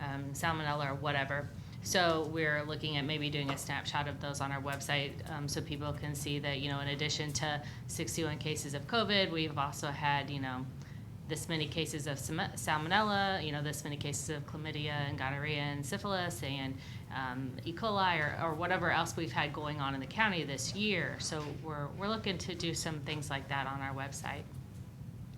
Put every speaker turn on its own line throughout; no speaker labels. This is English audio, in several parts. um, salmonella or whatever. So we're looking at maybe doing a snapshot of those on our website um, so people can see that, you know, in addition to 61 cases of COVID, we've also had, you know, this many cases of sam- salmonella, you know, this many cases of chlamydia and gonorrhea and syphilis and um, E. coli or, or whatever else we've had going on in the county this year. So we're, we're looking to do some things like that on our website.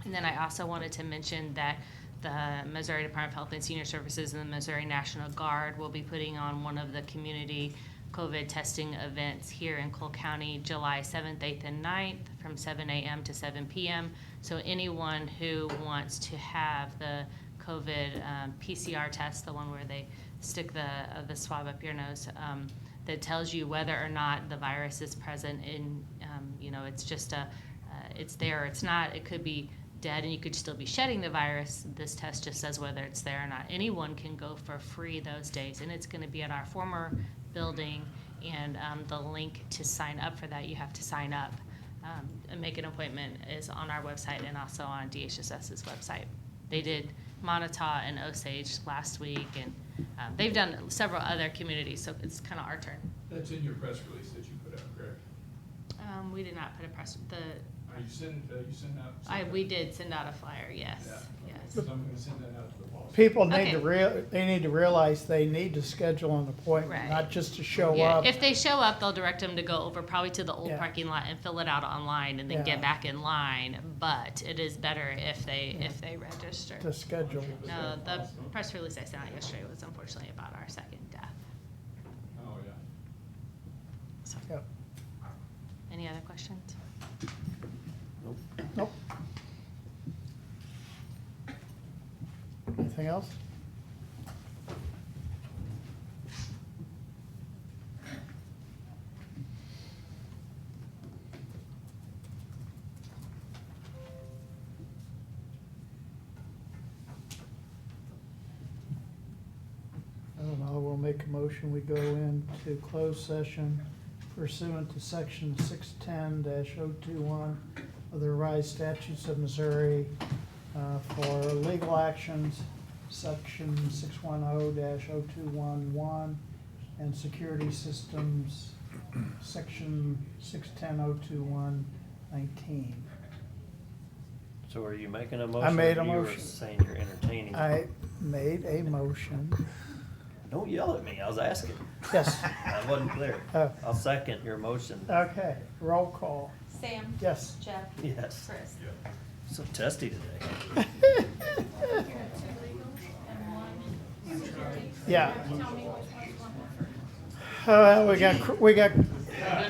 And then I also wanted to mention that the Missouri Department of Health and Senior Services and the Missouri National Guard will be putting on one of the community COVID testing events here in Cole County, July 7th, 8th, and 9th, from 7 a.m. to 7 p.m. So anyone who wants to have the COVID um, PCR test, the one where they stick the, uh, the swab up your nose, um, that tells you whether or not the virus is present in, um, you know, it's just a, uh, it's there or it's not. It could be dead and you could still be shedding the virus. This test just says whether it's there or not. Anyone can go for free those days, and it's going to be at our former building. And um, the link to sign up for that, you have to sign up um, and make an appointment, is on our website and also on DHSS's website. They did Montauk and Osage last week, and um, they've done several other communities, so it's kind of our turn.
That's in your press release that you put out, correct?
Um, we did not put a press, the,
Are you send, uh, you send out?
I, we did send out a flyer, yes,
Yeah, okay.
yes.
So I'm gonna send that out to the boss.
People need
Okay.
to real, they need to realize they need to schedule an appointment,
Right.
not just to show
Yeah,
up.
If they show up, they'll direct them to go over probably to the old
Yeah.
parking lot and fill it out online and then
Yeah.
get back in line. But it is better if they if they register.
To schedule.
No, the press release I sent out yesterday was unfortunately about our second death.
Oh, yeah.
So,
Yep.
any other questions?
Nope. Anything else? I don't know, we'll make a motion, we go into closed session pursuant to section six ten oh 21 of the revised statutes of Missouri uh, for legal actions, section six one oh 211 and security systems, section six ten oh two one nineteen.
So are you making a motion? or
made a
you were
motion.
Saying you're entertaining.
I made a motion,
Don't yell at me, I was asking.
yes,
I wasn't clear.
Oh.
I'll second your motion.
okay, roll call,
Sam.
yes.
Jeff.
Yes,
Chris.
so testy today.
Here are two legals and one security.
Yeah. Oh,
Tell me which one's one.
Uh, we got, we got